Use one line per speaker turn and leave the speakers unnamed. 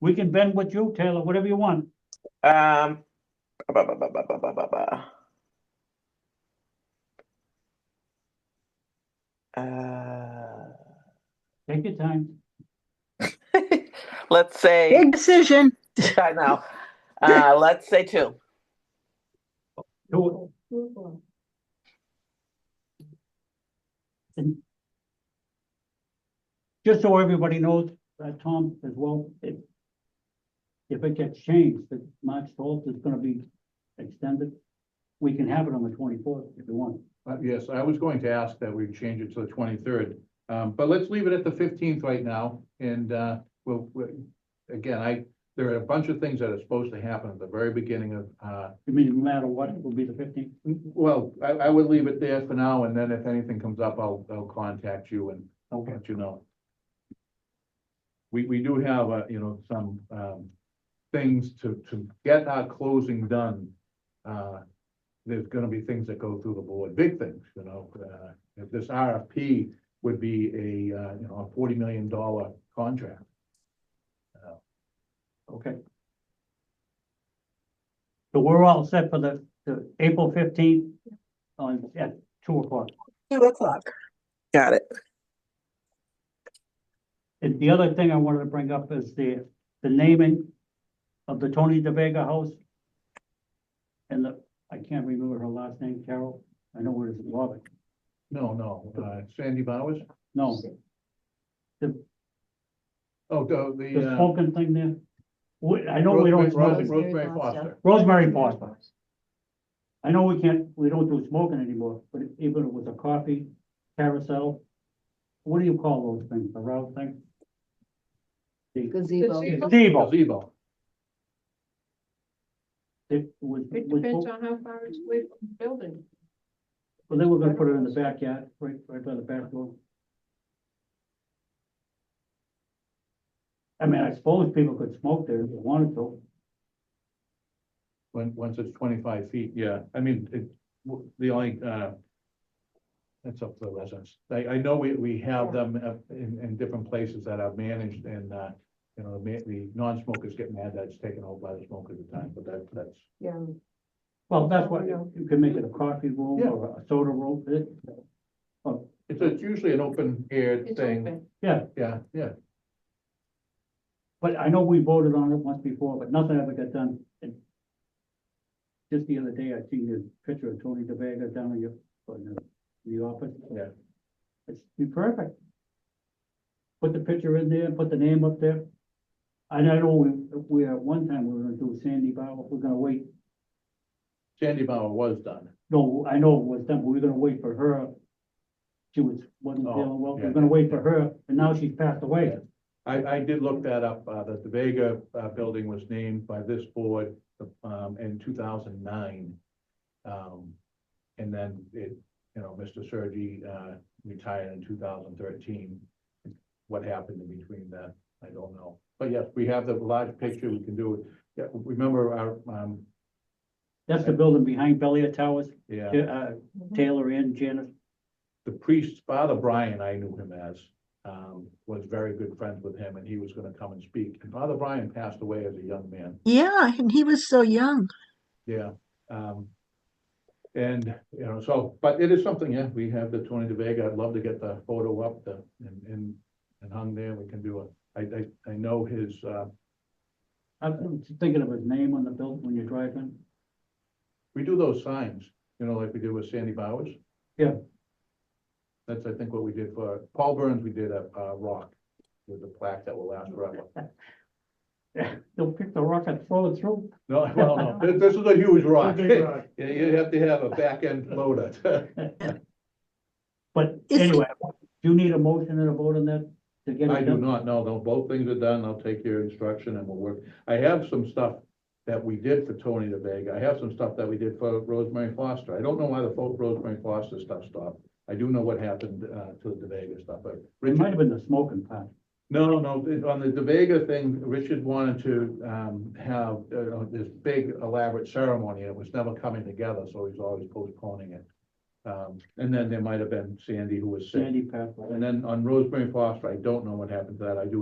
We can bend with you, Taylor, whatever you want.
Um. ba, ba, ba, ba, ba, ba, ba, ba. Uh,
Take your time.
let's say,
Big decision.
I know, uh, let's say two.
Do it. And Just so everybody knows, uh, Tom, as well, if if it gets changed, that March twelfth is gonna be extended, we can have it on the twenty-fourth if you want.
Uh, yes, I was going to ask that we change it to the twenty-third, um, but let's leave it at the fifteenth right now, and, uh, we'll, we again, I, there are a bunch of things that are supposed to happen at the very beginning of, uh,
I mean, no matter what, it will be the fifteenth.
well, I, I would leave it there for now, and then if anything comes up, I'll, I'll contact you and
Okay.
let you know. We, we do have, uh, you know, some, um, things to, to get our closing done. Uh, there's gonna be things that go through the board, big things, you know, uh, if this RFP would be a, uh, you know, a forty million dollar contract.
Okay. So we're all set for the, the April fifteenth on, at two o'clock.
Two o'clock.
Got it.
And the other thing I wanted to bring up is the, the naming of the Tony De Vega House. And the, I can't remember her last name, Carol, I know where it is, Robert,
No, no, uh, Sandy Bowers,
no,
oh, the,
the
the, uh,
smoking thing there. We, I know we
Rosemary
don't
Ros-
smoke,
Rosemary Foster.
Rosemary Foster, I know we can't, we don't do smoking anymore, but even if it was a coffee carousel. What do you call those things, the round thing? The
gazebo.
Gazebo.
gazebo,
Gazebo.
it was,
It
was-
depends on how far it's away from the building.
well, they were gonna put it in the backyard, right, right by the back door. I mean, I suppose people could smoke there if they wanted to,
When, once it's twenty-five feet, yeah, I mean, it, w- the only, uh. That's up to the residents, I, I know we, we have them up in, in different places that are managed and, uh. You know, the, ma- the non-smokers get mad that it's taken over by the smokers at times, but that, that's,
Yeah.
well, that's what,
Yeah.
you can make it a coffee room
Yeah.
or a soda room, it,
it's, it's usually an open air
It's
thing,
open.
yeah,
yeah, yeah.
but I know we voted on it once before, but nothing ever got done. And Just the other day, I seen this picture of Tony DeVega down in your, in the- the office.
Yeah.
It's be perfect. Put the picture in there, put the name up there. And I know we, we, at one time, we were gonna do Sandy Bauer, we're gonna wait,
Sandy Bauer was done,
no, I know it was done, but we were gonna wait for her. She was, wasn't
Oh,
feeling well, we
yeah.
we're gonna wait for her, and now she's passed away.
Yeah. I, I did look that up, uh, that the Vega, uh, building was named by this board, um, in two thousand nine. Um, and then it, you know, Mr. Sergi, uh, retired in two thousand thirteen. What happened in between that, I don't know, but yes, we have the large picture, we can do it, yeah, remember our, um,
That's the building behind Belia Towers,
yeah.
uh,
Mm-hmm.
Taylor and Janice.
the priest, Father Brian, I knew him as, um, was very good friends with him, and he was gonna come and speak. And Father Brian passed away as a young man,
Yeah, and he was so young.
yeah. Um, and, you know, so, but it is something, yeah, we have the Tony De Vega, I'd love to get the photo up, the, and, and, and hung there, we can do it. I, I, I know his, uh,
I'm thinking of his name on the building when you're driving.
we do those signs, you know, like we did with Sandy Bowers.
Yeah.
That's, I think, what we did for, Paul Burns, we did a, uh, rock with the plaque that will last forever.
They'll pick the rock and throw it through.
No, well, no, this, this is a huge rock.
Big
You,
rock.
you have to have a back end loader.
But
Is-
anyway, do you need a motion and a vote on that to get
I
it
do
done?
not, no, no, both things are done. I'll take your instruction and we'll work. I have some stuff that we did for Tony the Vega. I have some stuff that we did for Rosemary Foster. I don't know why the fo- Rosemary Foster stuff stopped. I do know what happened, uh, to the De Vega stuff, but
It might
Richard,
have been the smoking part.
no, no, it- on the De Vega thing, Richard wanted to, um, have, uh, this big elaborate ceremony. and It was never coming together, so he's always postponing it. Um, and then there might have been Sandy who was sick.
Sandy Path.
And then on Rosemary Foster, I don't know what happened to that. I do